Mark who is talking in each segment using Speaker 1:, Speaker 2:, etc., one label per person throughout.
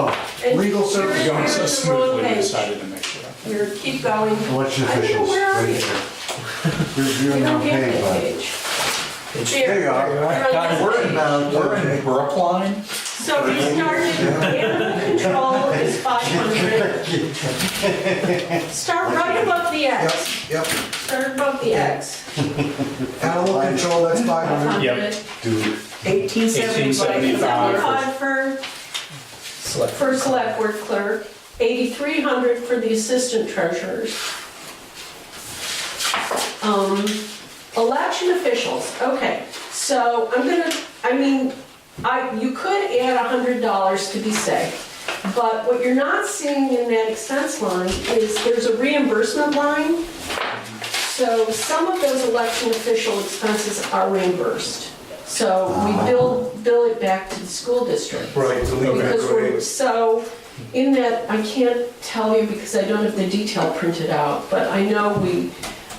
Speaker 1: Oh, Legal service.
Speaker 2: You're
Speaker 3: Going
Speaker 2: in
Speaker 3: so
Speaker 2: the wrong
Speaker 3: smoothly, we
Speaker 2: page.
Speaker 3: decided to make sure.
Speaker 2: You're, keep going.
Speaker 1: Election
Speaker 2: I don't know,
Speaker 1: officials,
Speaker 2: where are
Speaker 1: right
Speaker 2: you?
Speaker 1: here.
Speaker 2: You
Speaker 1: Reviewing
Speaker 2: don't
Speaker 1: on
Speaker 2: have
Speaker 1: pay
Speaker 2: that
Speaker 1: by.
Speaker 2: page.
Speaker 1: There you
Speaker 2: There.
Speaker 1: are.
Speaker 2: You're on
Speaker 3: God,
Speaker 2: this
Speaker 3: we're
Speaker 2: page.
Speaker 3: in, uh, we're in Brookline.
Speaker 2: So we started, animal control is 500. Start right above the
Speaker 4: Yep,
Speaker 2: X.
Speaker 4: yep.
Speaker 2: Start above the X.
Speaker 4: Animal control, that's five hundred.
Speaker 3: Yep.
Speaker 2: 100.
Speaker 1: Dude,
Speaker 5: Eighteen
Speaker 3: 1875.
Speaker 2: 75 for,
Speaker 5: Select.
Speaker 2: for select board clerk, 8,300 for the assistant treasurers. Um, Election officials, okay, so I'm gonna, I mean, I, you could add $100 to be safe. But what you're not seeing in that expense line is there's a reimbursement line. So some of those election official expenses are reimbursed. So we bill, bill it back to the school district.
Speaker 4: Right, the legal
Speaker 2: Because we're,
Speaker 4: grade.
Speaker 2: so, in that, I can't tell you because I don't have the detail printed out, but I know we,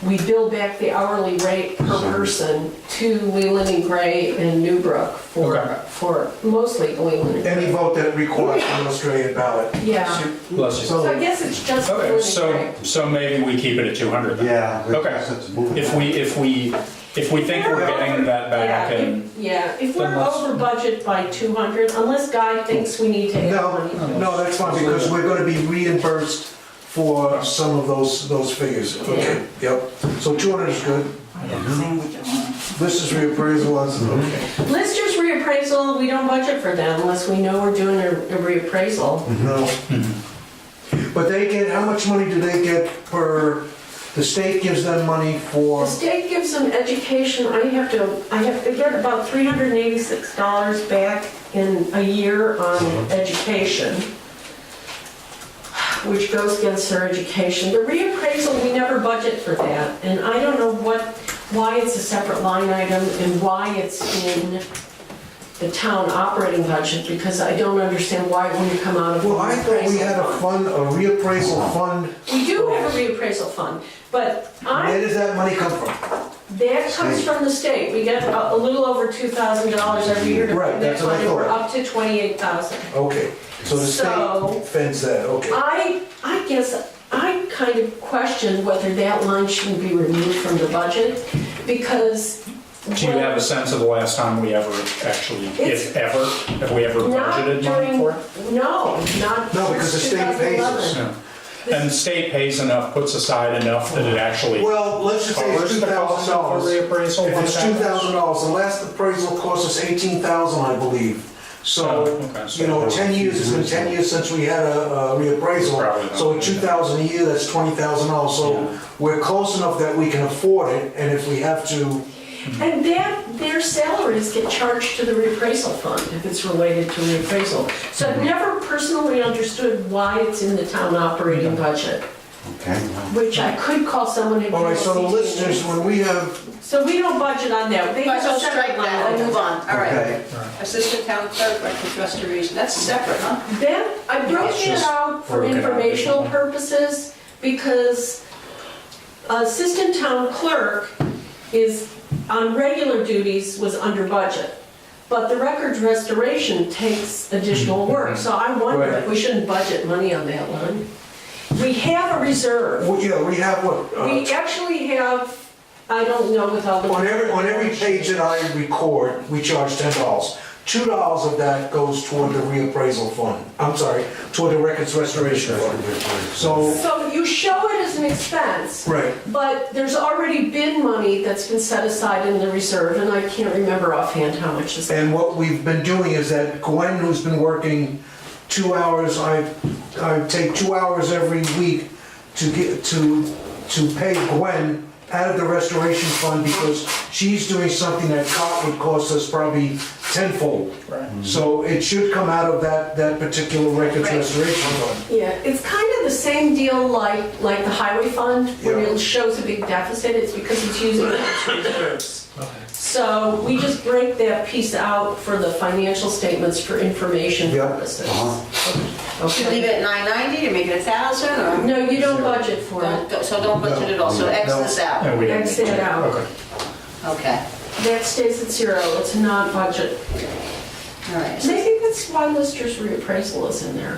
Speaker 2: we bill back the hourly rate per person to Leland and Gray and Newbrook for,
Speaker 3: Okay.
Speaker 2: for mostly Leland and Gray.
Speaker 4: Any vote that requires an Australian ballot.
Speaker 2: Yeah.
Speaker 3: Bless
Speaker 2: So
Speaker 4: So,
Speaker 2: I guess it's just Leland
Speaker 3: Okay,
Speaker 2: and
Speaker 3: so,
Speaker 2: Gray.
Speaker 3: so maybe we keep it at 200 then.
Speaker 1: yeah. but
Speaker 3: Okay.
Speaker 1: since it's moving-
Speaker 3: If we, if we, if we think we're getting that back
Speaker 2: Yeah, if-
Speaker 3: and,
Speaker 2: Yeah, if we're
Speaker 3: Then let's-
Speaker 2: over budget by 200, unless Guy thinks we need to add money.
Speaker 4: no, no, that's fine, because we're gonna be reimbursed for some of those, those figures. Okay, yep. So two hundred is good. This is reappraisal, that's, okay.
Speaker 2: Listers reappraisal, we don't budget for that unless we know we're doing a a reappraisal.
Speaker 4: No.
Speaker 3: Mm-hmm.
Speaker 4: But they get, how much money do they get per, the state gives them money
Speaker 2: The
Speaker 4: for,
Speaker 2: state gives them education, I have to, I have to get about $386 back in a year on education, which goes against their education. The reappraisal, we never budget for that, and I don't know what, why it's a separate line item and why it's in the town operating budget, because I don't understand why it wouldn't come out of the
Speaker 4: well, I thought we had
Speaker 2: reappraisal
Speaker 4: a fund,
Speaker 2: fund.
Speaker 4: a reappraisal fund.
Speaker 2: We do have a reappraisal fund, but
Speaker 4: Where
Speaker 2: I,
Speaker 4: does that money come from?
Speaker 2: that comes from the state. We get a a little over two thousand dollars every year to
Speaker 4: Right,
Speaker 2: fund that
Speaker 4: that's what I
Speaker 2: fund, and we're
Speaker 4: thought.
Speaker 2: up to twenty-eight thousand.
Speaker 4: Okay, so the
Speaker 2: So-
Speaker 4: state fends that, okay.
Speaker 2: I, I guess, I kind of question whether that line shouldn't be removed from the budget, because.
Speaker 3: do you have a sense of the last time we ever actually, if ever, have we ever
Speaker 2: Not
Speaker 3: budgeted money
Speaker 2: during,
Speaker 3: for it?
Speaker 2: no, not
Speaker 4: No, because the
Speaker 2: since
Speaker 4: state pays us.
Speaker 2: 2011.
Speaker 3: No. And the state pays enough, puts aside enough that it actually
Speaker 4: Well, let's just say it's
Speaker 3: covers
Speaker 4: two
Speaker 3: the cost
Speaker 4: thousand
Speaker 3: of a
Speaker 4: dollars.
Speaker 3: reappraisal.
Speaker 4: If
Speaker 3: when
Speaker 4: it's
Speaker 3: it
Speaker 4: two
Speaker 3: happens.
Speaker 4: thousand dollars, the last appraisal cost us eighteen thousand, I believe. So,
Speaker 3: Oh, okay, so
Speaker 4: you know,
Speaker 3: that
Speaker 4: ten years, it's been ten years since we had a a
Speaker 3: Probably
Speaker 4: reappraisal.
Speaker 3: not.
Speaker 4: So at two thousand a year, that's twenty thousand dollars.
Speaker 3: Yeah.
Speaker 4: So we're close enough that we can afford it, and if we have to,
Speaker 2: And that, their salaries get charged to the reappraisal fund if it's related to reappraisal. So
Speaker 4: Mm-hmm.
Speaker 2: I've never personally understood why it's in the town operating budget,
Speaker 1: Okay.
Speaker 2: which I could call someone and.
Speaker 4: all right, so the
Speaker 2: give us
Speaker 4: listeners,
Speaker 2: details.
Speaker 4: when we have,
Speaker 2: So we don't budget on that. They
Speaker 6: Might
Speaker 2: have
Speaker 6: as well
Speaker 2: a separate
Speaker 6: strike that
Speaker 2: line
Speaker 6: and move
Speaker 2: item.
Speaker 6: on, all
Speaker 4: Okay.
Speaker 6: right. Assistant town clerk, records restoration, that's separate, huh?
Speaker 2: Then I broke
Speaker 3: It's
Speaker 2: it
Speaker 3: just
Speaker 2: out for
Speaker 3: broken out.
Speaker 2: informational purposes because assistant town clerk is, on regular duties, was under budget. But the records restoration takes additional
Speaker 4: Mm-hmm.
Speaker 2: work, so I wonder if we shouldn't budget money on that one. We have a reserve.
Speaker 4: well, yeah, we have what? uh,
Speaker 2: We actually have, I don't know without.
Speaker 4: On every, on every page that I record, we charge ten dollars. Two dollars of that goes toward the reappraisal fund, I'm sorry, toward the records restoration fund. So,
Speaker 2: So you show it as an expense.
Speaker 4: right,
Speaker 2: But there's already been money that's been set aside in the reserve, and I can't remember offhand how much is.
Speaker 4: and what we've been doing is that Gwen, who's been working two hours, I, I take two hours every week to get, to, to pay Gwen out of the restoration fund because she's doing something that co- would cost us probably tenfold.
Speaker 3: Right.
Speaker 4: So it should come out of that, that particular records
Speaker 6: Right.
Speaker 4: restoration fund.
Speaker 2: Yeah, it's kind of the same deal like, like the highway fund, where
Speaker 4: Yeah.
Speaker 2: it shows a big deficit, it's because it's using it to reserves. So we just break that piece out for the financial statements for information
Speaker 4: Yeah. Uh-huh.
Speaker 2: purposes.
Speaker 6: Should leave
Speaker 2: Okay.
Speaker 6: it at 990 to make it a 1,000 or?
Speaker 2: No, you don't budget for it.
Speaker 6: Don't go- So don't budget it all, so X
Speaker 4: No.
Speaker 6: this out,
Speaker 3: And we didn't.
Speaker 2: Exit it out.
Speaker 3: Okay.
Speaker 6: okay,
Speaker 2: That stays at zero, it's not budget.
Speaker 6: all right.
Speaker 2: And I think that's why Lister's reappraisal is in there.